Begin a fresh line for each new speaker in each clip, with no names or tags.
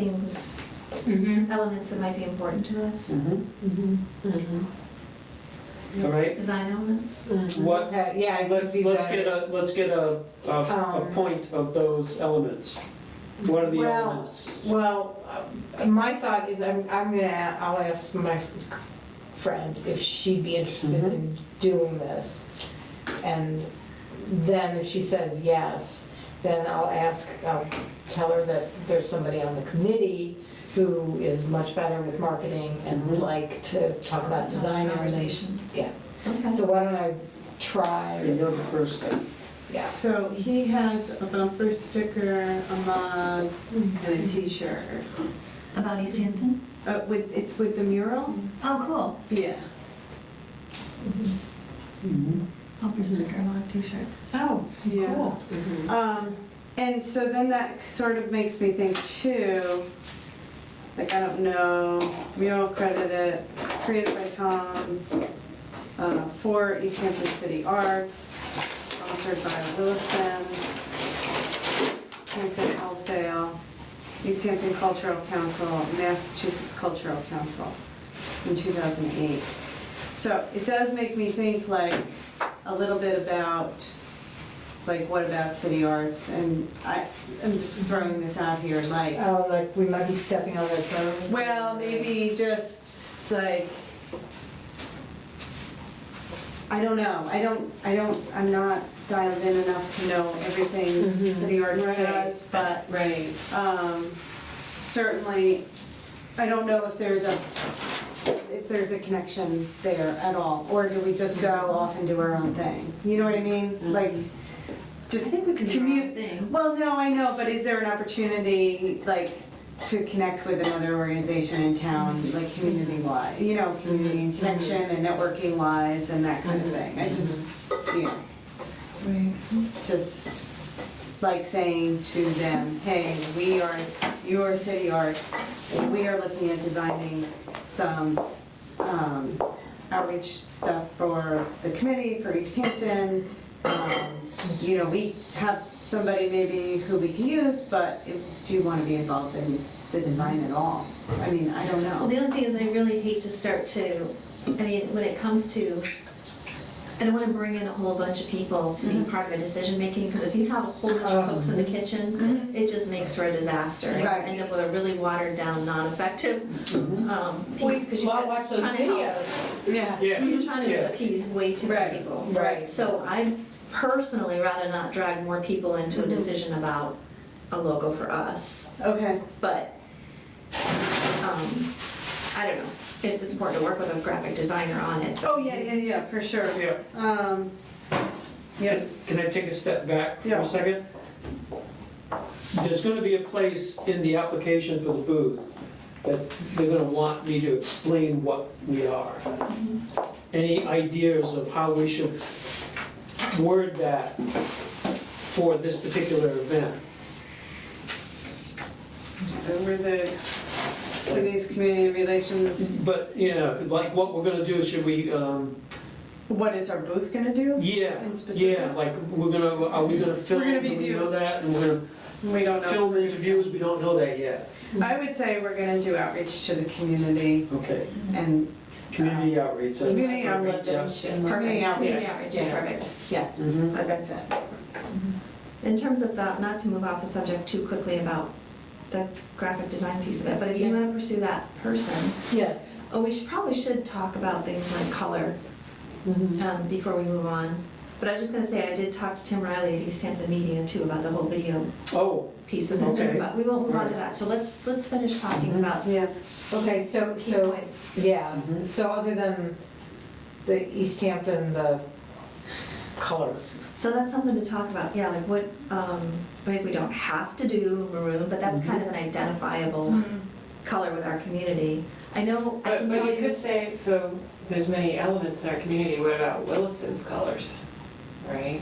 things,
Mm-hmm.
Mhm.
elements that might be important to us,
Mm-hmm.
All right,
design elements.
what,
Uh, Yeah, I can
let's,
see
let's get
that.
a, let's get a, a, a
Um,
point of those elements. What are the
Well,
elements?
Well, uh, my thought is, I'm, I'm gonna, a- I'll ask my friend if she'd be interested in doing this. And then if she says yes, then I'll ask, I'll tell her that there's somebody on the committee who is much better with marketing and would like to talk about design.
Organization.
Yeah,
Okay.
so why don't I try,
You're the first thing.
yeah.
So he has a bumper sticker, a mug, and a t-shirt.
About East Hampton?
Uh, with, it's with the mural?
Oh, cool.
Yeah.
Bumper sticker, on a t-shirt.
Oh,
Cool.
Um, and so then that sort of makes me think too, like, I don't know, we all credit it, created by Tom, uh, for East Hampton City Arts, sponsored by Williston, Hampton Wholesale, East Hampton Cultural Council, Massachusetts Cultural Council in 2008. So it does make me think like a little bit about like what about city arts? And I, I'm just throwing this out here, like,
Oh, like, we might be stepping on their toes?
well, maybe just like, I don't know, I don't, I don't, I'm not dialed in enough to know everything city arts
Right.
does, but
Right.
um, certainly, I don't know if there's a, if there's a connection there at all, or do we just go off and do our own thing? You know what I mean? Like, just commu-
thing.
Well, no, I know, but is there an opportunity, like, to connect with another organization in town, like, community-wise? You know, community and connection and networking-wise and that kind of thing? I just, you know,
Right.
just like saying to them, hey, we are, you are City Arts, and we are looking at designing some um, outreach stuff for the committee, for East Hampton. Um, You know, we have somebody maybe who we can use, but if- do you want to be involved in the design at all? I mean, I don't
Well,
know.
the other thing is I really hate to start to, I mean, when it comes to, I don't want to bring in a whole bunch of people to
Mm-hmm.
be part of a decision making, because if you have a whole bunch of folks
Oh.
in the kitchen,
Mm-hmm.
it just makes for a disaster. You
Right.
End up with a really watered down, non-effective
Mm-hmm.
um,
We-
piece, because you're
well, I watch those
trying to help.
Yeah.
Yeah,
You're trying to
Yes.
appease way too
Right,
many people.
right.
So I'd personally rather not drag more people into
Mm-hmm.
a decision about a logo for us
Okay.
but um, I don't know. It was important to work with a graphic designer on it. but-
Oh, yeah, yeah, yeah, for sure.
yeah.
Um, Yeah.
Can- Can I take a step back for
Yeah.
a second? There's gonna be a place in the application for the booth that they're gonna want me to explain what we are.
Mm-hmm.
Any ideas of how we should word that for this particular event?
We're the city's community relations.
But, yeah, like what we're gonna do, should we, um,
What is our booth gonna do?
yeah,
In specific?
yeah, like, we're gonna, are we gonna film?
gonna be
Do we
do-
know that? And we're
We don't
gonna
know.
film interviews, we don't know that yet.
I would say we're gonna do outreach to the community
Okay,
and
community outreach. that's
community outreach.
perfect, yeah.
Community outreach.
Community outreach is
Yeah.
perfect.
Yeah,
Mhm.
I- that's it.
In terms of the, not to move off the subject too quickly about the graphic design piece of it, but if you
Yeah.
want to pursue that person,
Yes.
oh, we should, probably should talk about things like color
Mm-hmm.
um, before we move on. But I was just gonna say, I did talk to Tim Riley at East Hampton Media too about the whole video
Oh,
piece of this,
Okay.
but we won't move on to
Right.
that. So let's, let's finish
Mm-hmm.
talking about
Yeah.
Okay, so,
key
so,
points.
yeah,
Mm-hmm.
Mhm.
so other than the East Hampton, the color.
So that's something to talk about, yeah, like what, um, I mean, we don't have to do maroon, but that's kind of an
Mm-hmm.
identifiable color with our community. I know, I
But,
can
but
tell
you could
you,
say, so there's many elements in our community, what about Williston's colors, right?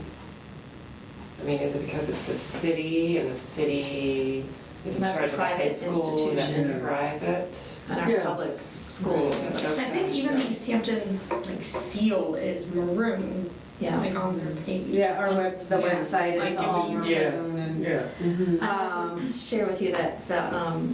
I mean, is it because it's the city and the city is in
That's a
charge of the high
private
school, and that's
institution.
private?
in our
Yeah.
public schools,
Right.
So I think even the East Hampton like seal is maroon,
yeah.
like on their page.
Yeah, our web, the
Yeah.
website is
Like,
all
you-
maroon
Yeah.
and.
yeah.
I want
Um,
to share with you that the, um,